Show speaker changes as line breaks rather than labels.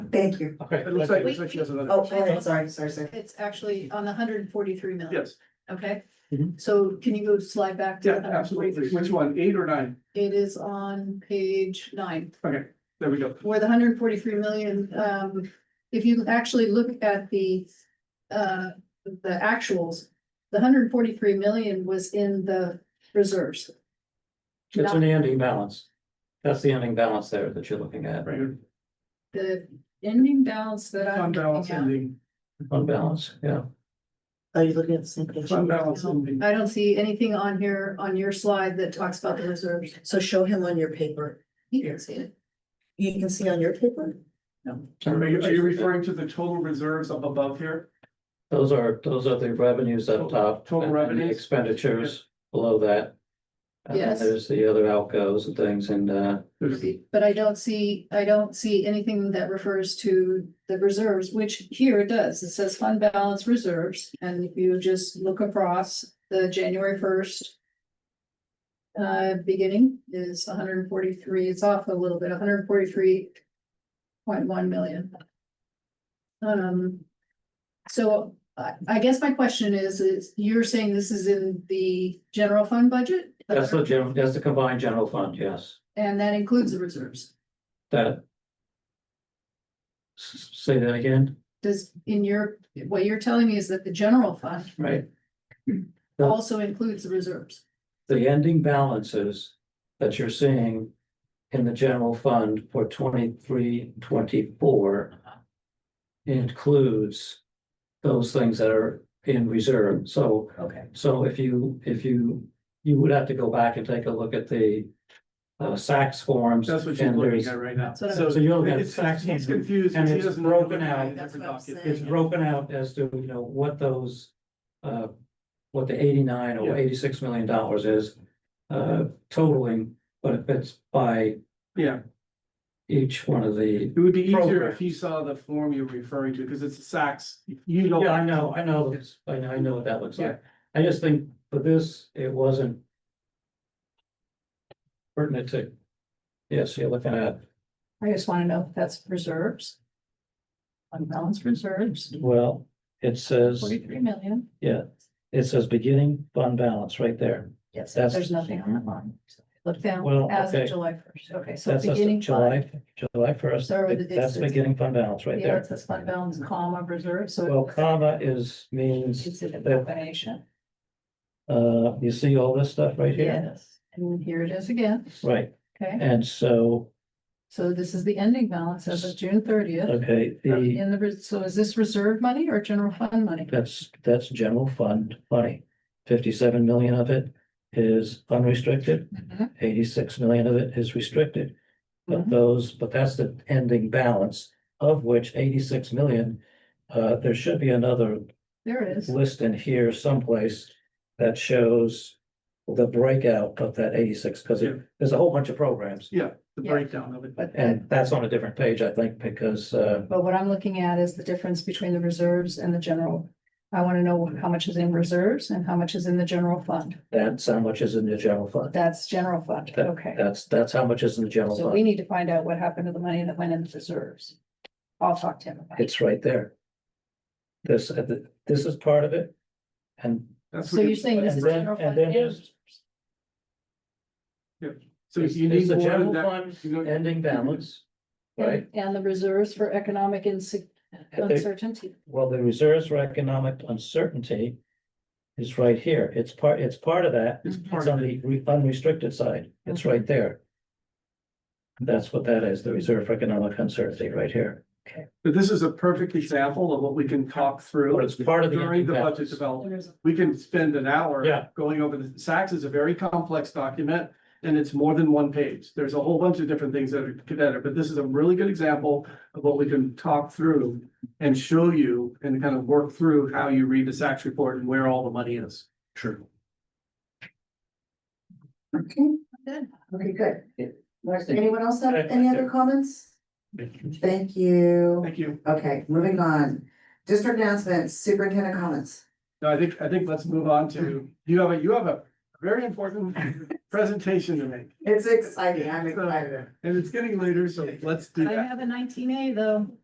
Thank you.
Okay.
It looks like, it looks like she has another.
Oh, go ahead, sorry, sorry, sorry.
It's actually on the hundred and forty-three million.
Yes,
Okay,
Mhm.
so can you go slide back to?
yeah,
the 143?
absolutely. Which one, eight or nine?
It is on page nine,
Okay, there we go.
where the hundred and forty-three million, um, if you actually look at the. Uh, the actuals, the hundred and forty-three million was in the reserves.
It's an ending balance. That's the ending balance there that you're looking at,
Right,
The ending balance that I'm
fund balance
looking at.
ending,
fund balance, yeah.
Are you looking at the same page?
fund balance ending.
I don't see anything on here, on your slide that talks about the reserves.
So show him on your paper.
You can see it.
You can see on your paper?
Are you, are you referring to the total reserves up above here?
Those are, those are the revenues up top.
Total
and- and the
revenues?
Expenditures below that. And then
Yes.
there's the other outgoes and things and, uh,
There's-
But I don't see, I don't see anything that refers to the reserves, which here it does. It says fund balance reserves. And if you just look across the January first. Uh, beginning is hundred and forty-three, it's off a little bit, hundred and forty-three point one million. Um, so I, I guess my question is, is you're saying this is in the general fund budget?
that's the general, that's the combined general fund, yes,
And that includes the reserves?
that. S- Say that again,
Does, in your, what you're telling me is that the general fund
right? Yeah.
also includes the reserves.
the ending balances that you're seeing in the general fund for 23, 24 includes those things that are in reserve. So,
Okay.
so if you, if you, you would have to go back and take a look at the uh, Saks forms.
That's what she's
and
looking
there's-
at right now.
That's what I-
So you're looking at
It's-
Saks. forms.
He's confused.
and
because he
it's
doesn't know
broken
what
out.
every
That's what I'm
document
saying.
It's broken out as to, you know, what those, uh, what the eighty-nine or
Yeah.
eighty-six million dollars is. Uh, totaling, but if it's by
is. Yeah,
each one of the.
It would be easier
Program.
if he saw the form you're referring to, because it's Saks, you know.
Yeah, I know, I know, it's- I know, I know what that looks
Yeah.
like. I just think for this, it wasn't. Pertinent to, yes, you're looking at,
I just wanna know if that's reserves. Unbalanced reserves,
well, it says,
forty-three million.
yeah, it says beginning fund balance right there.
Yes,
That's-
there's nothing on that line. Look
Well,
down as of
okay.
July first, okay, so
That's us-
beginning fund.
July, July first,
Start with the
that's
distance.
beginning fund balance right
Yeah,
there.
it says fund balance, comma, reserve,
Well,
so it's-
comma is means
it's a
that,
combination.
uh, you see all this stuff right here?
Yes, and here it is again,
Right,
okay?
and so,
So this is the ending balance as of June thirtieth.
okay, the,
In the, res- so is this reserve money or general fund money?
that's, that's general fund money. Fifty-seven million of it is unrestricted,
Mhm.
eighty-six million of it is restricted. But
Mhm.
those, but that's the ending balance, of which eighty-six million, uh, there should be another
There it is.
list in here someplace that shows the breakout of that eighty-six, because
Yeah.
there's a whole bunch of programs.
Yeah, the
Yeah.
breakdown of it.
But,
And that's on a different page, I think, because, uh,
but what I'm looking at is the difference between the reserves and the general. I want to know how much is in reserves and how much is in the general fund.
that's how much is in the general fund.
That's general fund,
That-
okay.
That's, that's how much is in the general
So we
fund.
need to find out what happened to the money that went in the reserves. I'll talk to him about it.
It's right there. This, uh, th- this is part of it. And
That's
So
what,
you're
you-
saying this
and
is
then-
general
and
fund
then
and
there's-
reserves?
so
it's
you
it's
need
the
more
general
than that.
fund
You know,
ending balance, right?
And and the reserves for economic inse- uncertainty.
Well, the reserves for economic uncertainty is right here. It's part, it's part of that.
It's
It's
part
on
of it.
the re- unrestricted side. It's right there. That's what that is, the reserve for economic uncertainty right here.
But this is a perfect example of what we can talk
But
through
it's part of the.
during the budget
balance.
development. We can spend an hour.
Yeah.
Going over the, Saks is a very complex document and it's more than one page. There's a whole bunch of different things that are connected, but this is a really good example of what we can talk through and show you and kind of work through how you read the Saks report and where all the money is. Sure.
Okay. Okay, good. Does Anyone else have any other comments? Thank you.
Thank you.
Okay, moving on. District announcements, superintendent comments.
No, I think, I think let's move on to, you have a, you have a very important presentation to make,
It's exciting. I'm excited.
and it's getting later, so let's do that.
have a nineteen A though.